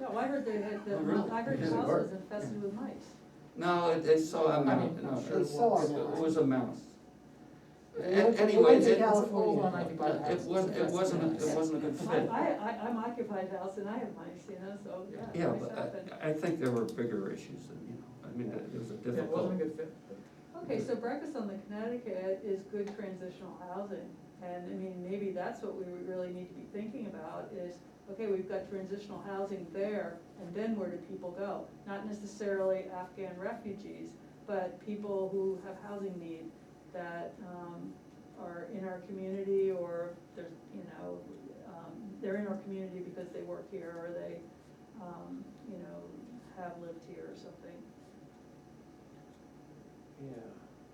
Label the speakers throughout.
Speaker 1: know, I heard they had,
Speaker 2: Oh, really?
Speaker 1: the- I heard
Speaker 2: Because
Speaker 1: the
Speaker 2: it
Speaker 1: house
Speaker 2: worked.
Speaker 1: was infested with mice.
Speaker 2: No, it, it saw a mouse,
Speaker 3: I'm
Speaker 2: no,
Speaker 3: sure
Speaker 2: it
Speaker 3: it saw
Speaker 2: was,
Speaker 3: a mouse.
Speaker 2: it was a mouse.
Speaker 3: It went
Speaker 2: An-
Speaker 3: to- it
Speaker 2: Anyways,
Speaker 3: went
Speaker 2: it,
Speaker 3: to
Speaker 2: it
Speaker 4: It's a
Speaker 3: California.
Speaker 4: full-on occupied house.
Speaker 2: wasn't, it wasn't, it wasn't a good
Speaker 1: I,
Speaker 2: fit.
Speaker 1: I, I- I'm occupied house and I have mice, you know, so, yeah,
Speaker 2: Yeah,
Speaker 1: mice
Speaker 2: but uh,
Speaker 1: happen.
Speaker 2: I, I think there were bigger issues than, you know, I mean, it was a
Speaker 4: It
Speaker 2: difficult.
Speaker 4: wasn't a good fit.
Speaker 1: Okay, so Breakfast on the Connecticut is good transitional housing. And I mean, maybe that's what we would really need to be thinking about is, okay, we've got transitional housing there, and then where do people go? Not necessarily Afghan refugees, but people who have housing need that um, are in our community or they're, you know, um, they're in our community because they work here or they, um, you know, have lived here or something.
Speaker 3: Yeah,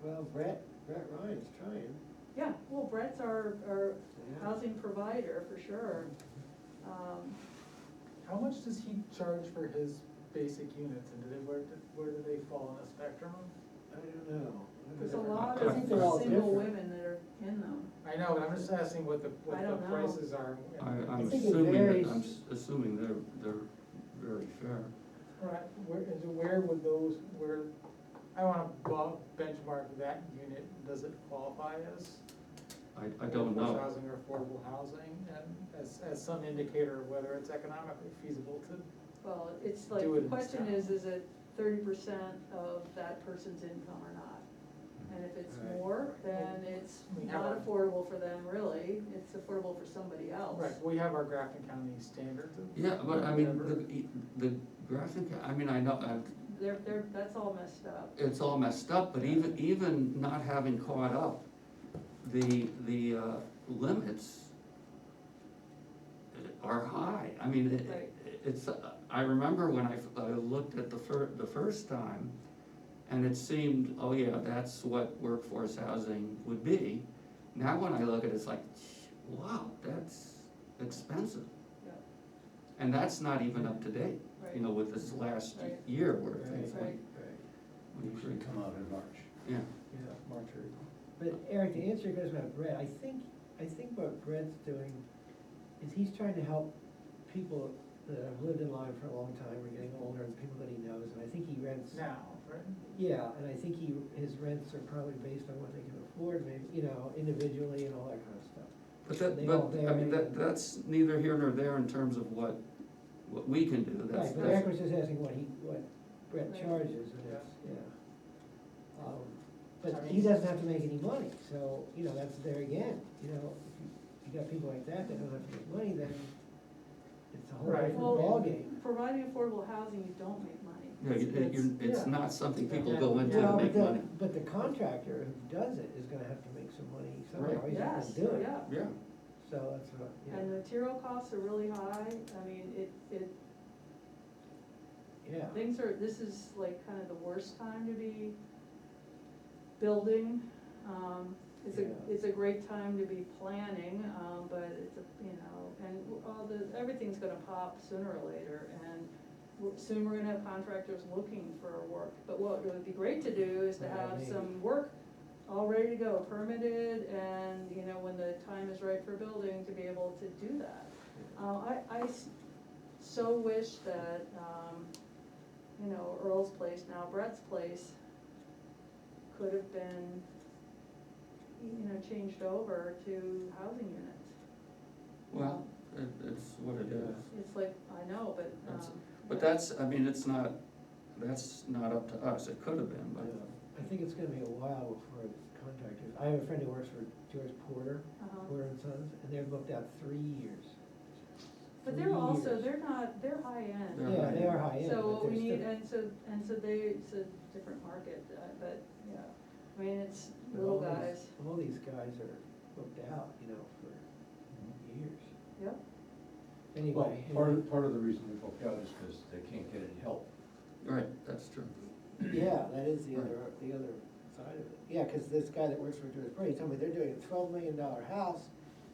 Speaker 3: well, Brett, Brett Ryan's trying.
Speaker 1: Yeah, well, Brett's our, our
Speaker 3: Yeah.
Speaker 1: housing provider for sure. Um,
Speaker 4: How much does he charge for his basic units and do they, where, do- where do they fall on the spectrum?
Speaker 3: I don't know. I
Speaker 1: There's a
Speaker 3: don't know.
Speaker 1: lot
Speaker 3: I
Speaker 1: of
Speaker 3: think they're all
Speaker 1: single
Speaker 3: different.
Speaker 1: women that are in them.
Speaker 4: I know, but I'm just asking what the, what
Speaker 1: I
Speaker 4: the
Speaker 1: don't know.
Speaker 4: prices are.
Speaker 2: I, I'm
Speaker 3: think it
Speaker 2: assuming, that-
Speaker 3: varies.
Speaker 2: I'm s- assuming they're, they're very fair.
Speaker 4: Right, where, is- where would those, where, I wanna bo- benchmark that unit, does it qualify as?
Speaker 2: I, I don't
Speaker 4: workforce
Speaker 2: know.
Speaker 4: Housing or affordable housing, and as, as some indicator of whether it's economically feasible to,
Speaker 1: Well, it's like,
Speaker 4: Do it
Speaker 1: the
Speaker 4: in
Speaker 1: question
Speaker 4: style.
Speaker 1: is, is it thirty percent of that person's income or not? And if it's
Speaker 3: Right.
Speaker 1: more, then it's
Speaker 4: We have
Speaker 1: not
Speaker 4: a-
Speaker 1: affordable for them really, it's affordable for somebody else.
Speaker 4: right, we have our Grafton County standards. of-
Speaker 2: Yeah, but I
Speaker 4: whatever.
Speaker 2: mean, the, the graphic, I mean, I know, I've,
Speaker 1: They're, they're, that's all messed up.
Speaker 2: it's all messed up, but even, even not having caught up, the, the, uh, limits are high, I mean,
Speaker 1: Right.
Speaker 2: it, it's, I remember when I, f- I looked at the fir, the first time, and it seemed, oh yeah, that's what workforce housing would be. Now when I look at it, it's like, wow, that's expensive,
Speaker 1: Yeah,
Speaker 2: and that's not even up to date, you
Speaker 1: Right.
Speaker 2: know, with this last
Speaker 1: Right.
Speaker 2: year where things
Speaker 1: Right.
Speaker 2: went,
Speaker 3: Right.
Speaker 2: went crazy.
Speaker 5: come out in March.
Speaker 2: yeah.
Speaker 3: Yeah.
Speaker 5: March or April.
Speaker 3: But Eric, to answer your question about Brett, I think, I think what Brett's doing is he's trying to help people that have lived in Lyme for a long time, are getting older, and people that he knows, and I think he rents.
Speaker 4: Now, right?
Speaker 3: Yeah, and I think he, his rents are probably based on what they can afford, maybe, you know, individually and all that kind of stuff.
Speaker 2: But
Speaker 3: They
Speaker 2: that, but,
Speaker 3: all
Speaker 2: I mean,
Speaker 3: vary.
Speaker 2: that, that's neither here nor there in terms of what, what we can do, that's,
Speaker 3: Right, but Eric
Speaker 2: that's,
Speaker 3: was just asking what he, what Brett
Speaker 1: Right.
Speaker 3: charges, and it's, yeah. Um, But
Speaker 4: I mean-
Speaker 3: he doesn't have to make any money, so, you know, that's there again, you know, if you, you got people like that that don't have to make money, then it's a whole
Speaker 4: Right.
Speaker 3: different
Speaker 1: Well,
Speaker 3: ballgame.
Speaker 1: Providing affordable housing, you don't make money.
Speaker 2: you know, you- you-
Speaker 4: It's-
Speaker 2: it's
Speaker 4: yeah.
Speaker 2: not something people
Speaker 4: Yeah.
Speaker 2: go into
Speaker 4: Yeah.
Speaker 2: to
Speaker 3: Well,
Speaker 2: make
Speaker 3: but
Speaker 2: money.
Speaker 3: the, but the contractor who does it is gonna have to make some money somehow, he's not
Speaker 1: Yes,
Speaker 3: gonna do it,
Speaker 1: yeah.
Speaker 2: Yeah,
Speaker 3: so that's what, you
Speaker 1: And
Speaker 3: know,
Speaker 1: material costs are really high, I mean, it, it,
Speaker 3: yeah.
Speaker 1: things are, this is like kind of the worst time to be building. Um, It's a,
Speaker 3: Yeah.
Speaker 1: it's a great time to be planning, um, but it's, a you know, and all the, everything's gonna pop sooner or later. And we're- soon we're gonna have contractors looking for work, but what would be great to do is to
Speaker 3: Yeah,
Speaker 1: have
Speaker 3: maybe.
Speaker 1: some work all ready to go, permitted, and, you know, when the time is right for building, to be able to do that. Uh, I, I s- so wish that, um, you know, Earl's place, now Brett's place, could have been, you know, changed over to housing units.
Speaker 2: well, it, it's what it is.
Speaker 1: It's like, I know, but,
Speaker 2: That's-
Speaker 1: um.
Speaker 2: But that's, I mean, it's not, that's not up to us, it could have been,
Speaker 3: Yeah.
Speaker 2: but, uh,
Speaker 3: I think it's gonna be a while before contractors, I have a friend who works for George Porter,
Speaker 1: Uh-huh.
Speaker 3: Porter and Sons, and they've looked out three years.
Speaker 1: But they're
Speaker 3: Three
Speaker 1: also,
Speaker 3: years.
Speaker 1: they're not, they're high
Speaker 2: They're
Speaker 1: end.
Speaker 3: Yeah, they are high end,
Speaker 1: So
Speaker 3: but
Speaker 1: what we
Speaker 3: they're
Speaker 1: need,
Speaker 3: still,
Speaker 1: and so, and so they, it's a different market, uh, but, yeah, I mean, it's
Speaker 3: but
Speaker 1: little
Speaker 3: all these,
Speaker 1: guys,
Speaker 3: all these guys are booked out, you know, for years.
Speaker 1: yep.
Speaker 5: Well,
Speaker 3: Anyway.
Speaker 5: part of, part of the reason they booked out is because they can't get any help.
Speaker 2: right, that's true.
Speaker 3: Yeah, that is the other, the other side of it. Yeah, cause this guy that works for George Porter, he told me they're doing a twelve million dollar house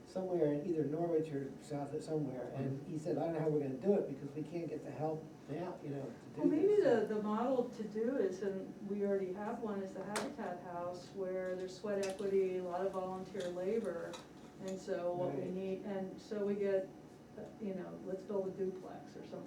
Speaker 3: somewhere in either Norwich or south of somewhere, and he said, I don't know how we're gonna do it, because we can't get the help now, you know, to
Speaker 1: Well,
Speaker 3: do
Speaker 1: maybe
Speaker 3: this."
Speaker 1: the, the model to do is, and we already have one, is the Habitat House, where there's sweat equity, a lot of volunteer labor. And so what we
Speaker 3: Right.
Speaker 1: need, and so we get, uh, you know, let's build a duplex or something